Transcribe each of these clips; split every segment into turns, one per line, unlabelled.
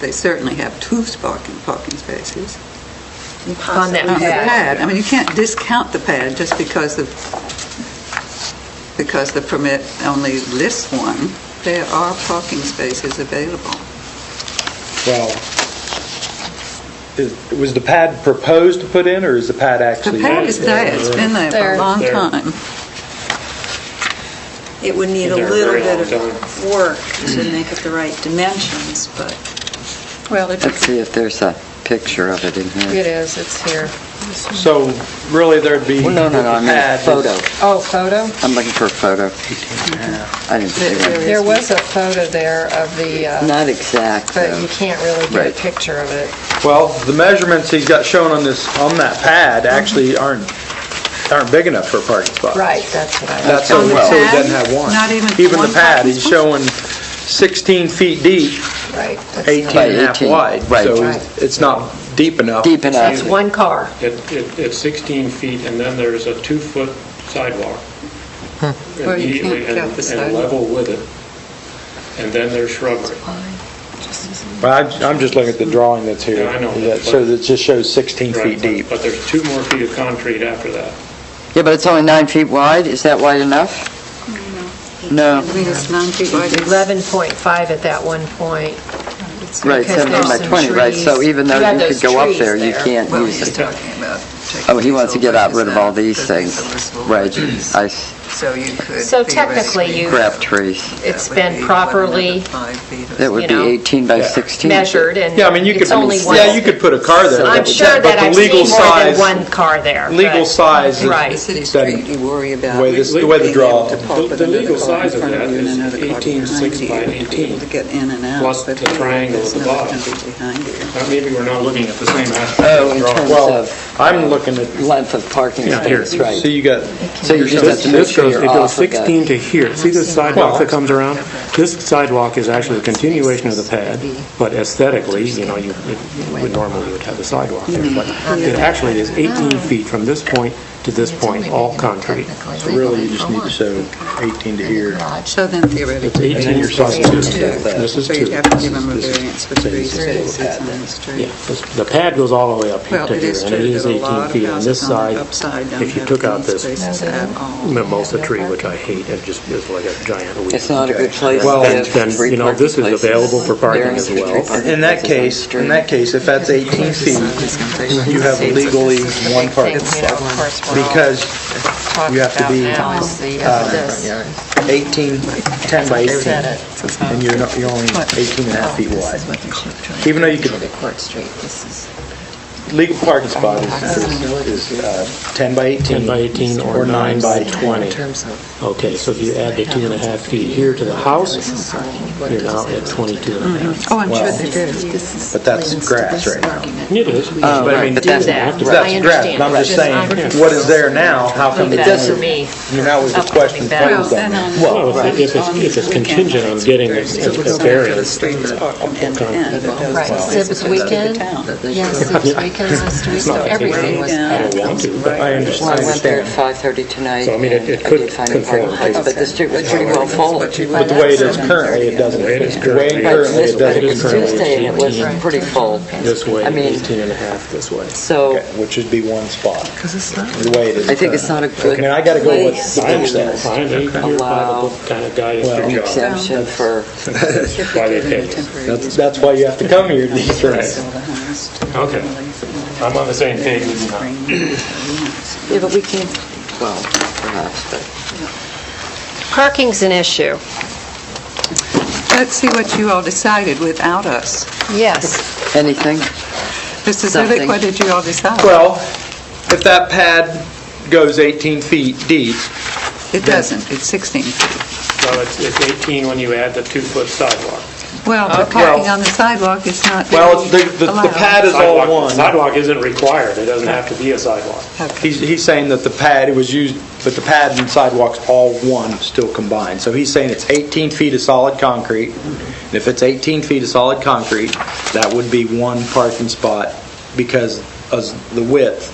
They certainly have two parking, parking spaces.
On that
The
pad.
pad, I mean, you can't discount the pad just because the, because the permit only lists one. There are parking spaces available.
Well, is- was the pad proposed to put in, or is the pad
The
actually?
pad is there, it's been there for
There.
a long
There.
time.
It would need a
They're
little
very
bit
long
of work to make it the right dimensions, but
Well, if
Let's
it's,
see if there's a picture of it in here.
it is, it's here.
So really, there'd be.
Well, No, no, no, I
the
mean a
pad is-
photo.
Oh, photo?
I'm looking for a photo. I didn't see one.
There was a photo there of the, uh,
Not exact,
but you
though.
can't really get a
Right.
picture of it.
Well, the measurements he's got shown on this, on that pad actually aren't, aren't big enough for a parking spot.
Right, that's what I,
That's so
On
so he
the pad?
doesn't have one.
Not even one
the pad,
parking
he's
spot?
showing 16 feet deep,
right. that's
18
By
and a half
18,
wide.
right.
So
Right.
it's not deep enough.
Deep
not- It's
enough.
one car.
It, it, it's 16 feet, and then there's a two-foot sidewalk.
Well, you
immediately
can't
and-
count the
And
sidewalk.
level with it, and then there's shrubbery.
Well, I'm- I'm just looking at the drawing that's here.
Yeah, I know.
That- So it just shows 16
Right,
feet deep.
But there's two more feet of concrete after that.
Yeah, but it's only nine feet wide. Is that wide enough? No,
I mean, it's nine feet wide.
11.5 at that one point.
right,
Because
17 by
there's some
20, right? So
trees.
even
You
though
have
you
those
could go up
trees
there, you can't
Well,
use
he's
it.
talking about taking
Oh, he wants to
these
get out
old
rid of all
branches
these
out,
things.
because those will
Right,
reduce.
I s-
So you could.
So technically,
theoretically-
you-
crap trees.
It's
That would
been
be
properly
11 to five feet or
That would be
You know,
18 by 16.
measured and
Yeah, I mean, you could,
it's only one.
yeah, you could put a car there.
I'm
but-
sure
but
that
the
I've
legal
seen more than
size-
one car there.
Legal
but-
size is-
The
Right.
city street, you worry about.
Way this- the way the
being able
draw-
to park
the-
with
the
another
legal
car in
size of
front
that
you and
is
another car
18
behind
six
you
by
to be
18,
able To get in and out.
plus
but
the triangle
there's
at the
another
bottom.
company behind you.
Now, Maybe we're not looking at the same aspect
Oh,
of
in
the drawing.
terms
Well,
of
I'm looking at,
length of parking
Yeah, here.
space, right?
so you got,
So you just have
This
to make
this
sure
goes,
you're
it goes
off of that.
16 to here. See this
Well-
sidewalk that comes around? This sidewalk is actually a continuation of the pad, but aesthetically, you know, you it would normally would have the sidewalk there. But
Mm-hmm.
it actually is 18
Ah.
feet from this point to this point, all concrete.
really, you just need to show 18 to here.
So then
It's
theoretically.
18
you're
plus
talking
two.
about that.
This is
So you'd
two.
have to give them a variance for three
is
spaces on the street.
Yeah, this- the pad goes all the way up here
Well,
to
it
here,
is
and
true
it is
that a
18
lot of
feet on this
houses on
side.
the upside don't
If you
have
took out
green
this
spaces at all.
mimosa tree, which I hate, it just is like a giant weed.
It's not a good place
Well,
to have
then,
three
you know, this is
parking places.
available for parking
There
as
are three
well.
parking
In that
places on the
case,
street. Oh,
in that case, if that's 18 feet, you have legally one parking
Thing, you know, of
spot.
course, we're all
Because
talking
you have to
about
be,
now is the, uh, this.
18, 10 by 18,
Said it.
and you're not, you're only 18 and a half
Oh,
feet wide. Even though you could-
Court Street, this is...
Legal parking spot is, is is, uh, 10 by 18.
10 by 18 or 9 by 20. Okay, so if you add the two and a half feet here to the house, you're now at 22 and a half.
Oh, I'm sure they do.
But that's grass right now.
Mm-hmm. It is.
But I mean,
But that's-
have to-
Right.
That's grass, but I'm just saying, what is there now, how come
Leave
it
that for
doesn't?
me.
You know, that was the question.
Upcoming
Well,
battles.
then on-
Well, if it- if it's- if it's contingent on getting a- a- a variance,
Streets are from end to end, but those
Right.
places
Except it's
are the
weekend.
town.
Yes, it was weekends and streets, so
like they
everything was
Yeah.
I don't want to, but I
Well, I went there
understand.
at 5:30 tonight.
So, I mean, it-
and
it
I
could
did find a
conform
parking
to
place,
it.
But the street was pretty well full. Right,
But the way it is currently, it doesn't.
The way it is
The way
currently.
currently,
this
it
was
doesn't.
It is currently
Tuesday, and it was
18.
pretty full.
this way,
I mean,
18 and a half this way.
so
Okay, Which would be one spot. Because it's not. The way it is.
I think it's not a
currently.
good
I mean, I gotta go with what the
I
book
understand,
says.
I am here by the
Allow-
book kind of guy is
an
your job.
exemption for,
Why they
Given the
pay us.
temporary
That's,
use
that's why you have to come here to these things.
of the house to
Okay.
relieve the-
I'm on the same page with you now.
Bring the
yeah, but we can't, well, perhaps, but...
Parking's an issue,
Let's see what you all decided without us.
yes.
Anything?
Mr. Zivik,
Something.
what did you all decide?
Well, if that pad goes 18 feet deep,
It doesn't, it's 16 feet.
So it's it's 18 when you add the two-foot sidewalk.
Well, but parking on the sidewalk is not
Uh, well, the, the the
allowed.
pad is all
Sidewalk-
one.
Sidewalk isn't required, it doesn't have to be a sidewalk.
Okay.
He's, he's saying that the pad, it was used, but the pad and sidewalk's all one, still combined. So he's saying it's 18 feet of solid concrete. And if it's 18 feet of solid concrete, that would be one parking spot because of the width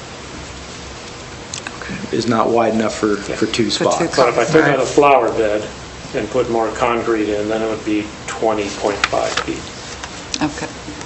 is not wide enough for, for two spots.
But if I took out a flower bed and put more concrete in, then it would be 20.5 feet.
Okay.